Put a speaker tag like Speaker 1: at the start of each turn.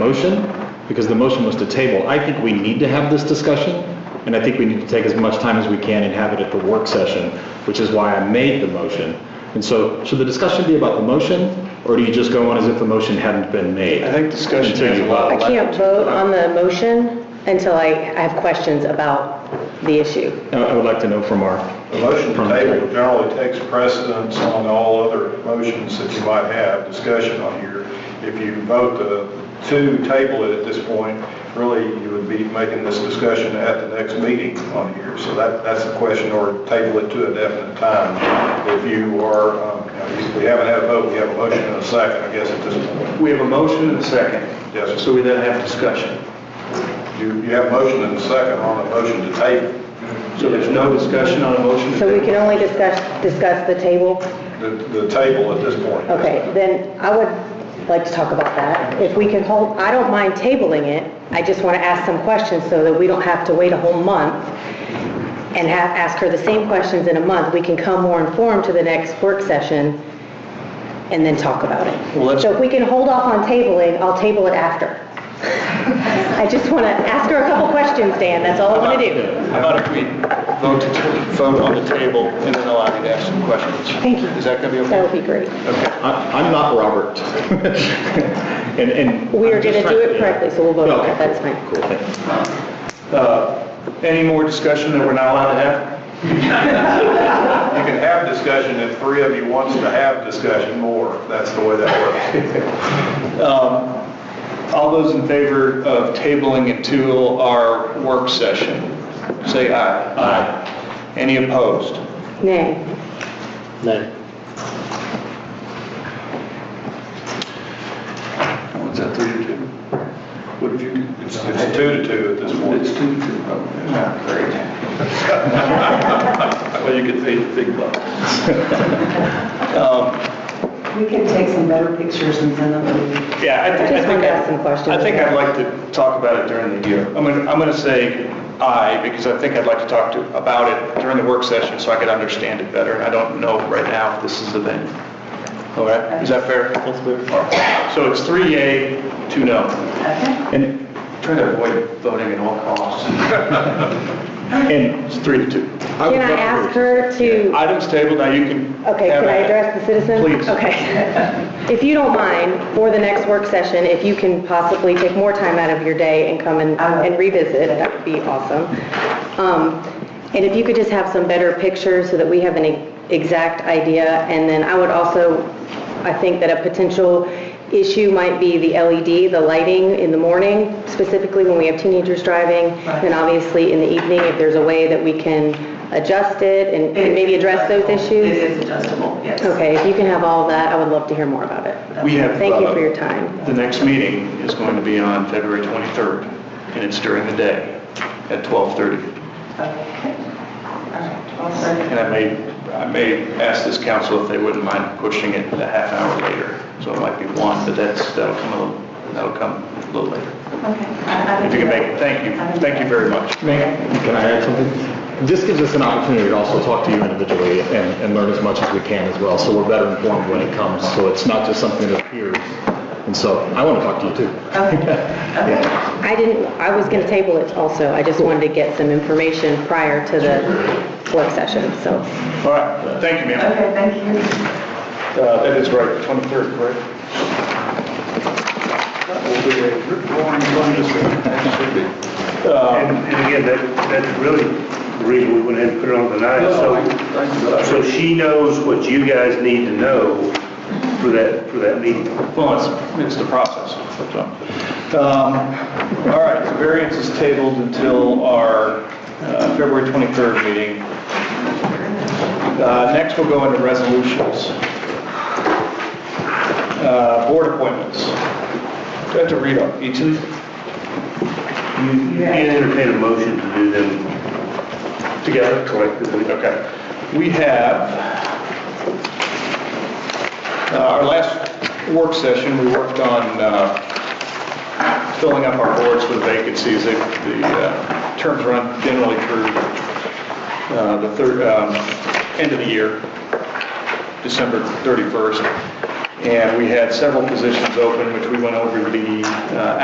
Speaker 1: motion, because the motion was to table. I think we need to have this discussion, and I think we need to take as much time as we can and have it at the work session, which is why I made the motion. And so, should the discussion be about the motion, or do you just go on as if the motion hadn't been made?
Speaker 2: I think discussion
Speaker 1: Until
Speaker 2: has
Speaker 1: you
Speaker 2: a lot
Speaker 3: I
Speaker 2: of-
Speaker 3: can't vote on the motion until I I have questions about the issue.
Speaker 1: I I would like to know from our...
Speaker 4: The motion to table generally takes precedence on all other motions that you might have discussion on here. If you vote to- to table it at this point, really, you would be making this discussion at the next meeting on here. So that, that's the question, or table it to a definite time. If you are, um, if we haven't had a vote, we have a motion and a second, I guess, at this point.
Speaker 2: We have a motion and a second.
Speaker 4: Yes, sir.
Speaker 2: So we then have discussion.
Speaker 4: You, you have a motion and a second on a motion to table.
Speaker 2: So there's no discussion on a motion to
Speaker 3: So we
Speaker 2: table.
Speaker 3: can only discuss, discuss the table?
Speaker 4: The, the table at this point.
Speaker 3: Okay, then I would like to talk about that. If we can hold, I don't mind tabling it, I just want to ask some questions so that we don't have to wait a whole month and have, ask her the same questions in a month. We can come more informed to the next work session and then talk about
Speaker 2: Well,
Speaker 3: it.
Speaker 2: let's-
Speaker 3: So if we can hold off on tabling, I'll table it after. I just want to ask her a couple questions, Dan, that's all I want to do.
Speaker 2: How about if we vote, to- vote on the table and then allow you to ask some questions?
Speaker 3: Thank you.
Speaker 2: Is that going to be
Speaker 3: That
Speaker 2: okay?
Speaker 3: would be great.
Speaker 1: I- I'm not Robert. And, and...
Speaker 3: We are
Speaker 1: I'm just
Speaker 3: gonna
Speaker 1: trying
Speaker 3: do it correctly, so we'll vote on
Speaker 1: Okay,
Speaker 3: it, that's fine.
Speaker 1: Cool, thank you.
Speaker 2: Uh, Any more discussion that we're not allowed to have?
Speaker 4: You can have discussion if three of you wants to have discussion more. That's the way that works.
Speaker 2: All those in favor of tabling it to our work session, say aye. Aye. Any opposed?
Speaker 3: Nay.
Speaker 2: Was that three to two? What did you?
Speaker 4: It's it's two to two at this point.
Speaker 2: It's two to two. Oh, great. Well, you could pay the big bucks.
Speaker 5: We can take some better pictures and send them to you.
Speaker 2: Yeah, I think, I think,
Speaker 3: Just wanted to ask some questions.
Speaker 2: I- I think I'd like to talk about it during the year. I'm going, to I'm going to say aye, because I think I'd like to talk to, about it during the work session, so I could understand it better, and I don't know right now if this is the thing. All right, is that fair? That's fair. So it's three yay, two no.
Speaker 5: Okay?
Speaker 1: And,
Speaker 2: Try to avoid voting at all costs.
Speaker 1: and
Speaker 2: It's three to two.
Speaker 1: would
Speaker 3: Can I
Speaker 1: love to
Speaker 3: ask
Speaker 1: hear-
Speaker 3: her to,
Speaker 2: Items tabled, now you can.
Speaker 3: okay,
Speaker 2: have
Speaker 3: can I
Speaker 2: at it.
Speaker 3: address the citizen?
Speaker 2: Please.
Speaker 3: Okay. If you don't mind, for the next work session, if you can possibly take more time out of your day and come and
Speaker 5: I will.
Speaker 3: and revisit, that would be awesome. Um, And if you could just have some better pictures so that we have an e- exact idea. And then I would also, I think that a potential issue might be the LED, the lighting in the morning, specifically when we have teenagers driving.
Speaker 5: Right.
Speaker 3: And obviously in the evening, if there's a way that we can adjust it and and maybe address those
Speaker 5: It
Speaker 3: issues?
Speaker 5: is adjustable, yes.
Speaker 3: Okay, if you can have all of that, I would love to hear more about it.
Speaker 2: We have.
Speaker 3: Thank you
Speaker 2: uh,
Speaker 3: for your time.
Speaker 2: The next meeting is going to be on February 23rd, and it's during the day at 12:30.
Speaker 5: Okay. All right, well, sorry.
Speaker 2: And I may, I may ask this council if they wouldn't mind pushing it a half hour later. So it might be one, but that's, that'll come a little, that'll come a little later.
Speaker 5: Okay. I- I
Speaker 2: If you can
Speaker 5: do
Speaker 2: make it,
Speaker 5: that.
Speaker 2: thank you, thank you very much.
Speaker 1: Can I add something? This gives us an opportunity to also talk to you individually and, and learn as much as we can as well, so we're better informed when it comes, so it's not just something that appears. And so, I want to talk to you too.
Speaker 5: Okay, okay.
Speaker 3: I didn't, I was going to table it also, I just wanted to get some information prior to the work session, so.
Speaker 2: All right, thank you, ma'am.
Speaker 5: Okay, thank you.
Speaker 2: Uh, That is right, 23rd, correct? That will be a roaring contest.
Speaker 6: And and again, that, that's really the reason we went ahead and put it on tonight. So, so she knows what you guys need to know for that, for that meeting.
Speaker 2: Well, it's, it's the process. so. Um, All right, so variance is tabled until our uh, February 23rd meeting. Uh, Next, we'll go into resolutions. Uh, Board appointments. Do I have to read up each of these?
Speaker 6: You you can entertain a motion to do them together collectively.
Speaker 2: Okay. We have, uh, our last work session, we worked on uh, filling up our boards with vacancies. The the, uh, terms run generally through uh, the third, um, end of the year, December 31st. And we had several positions open, which we went over the uh,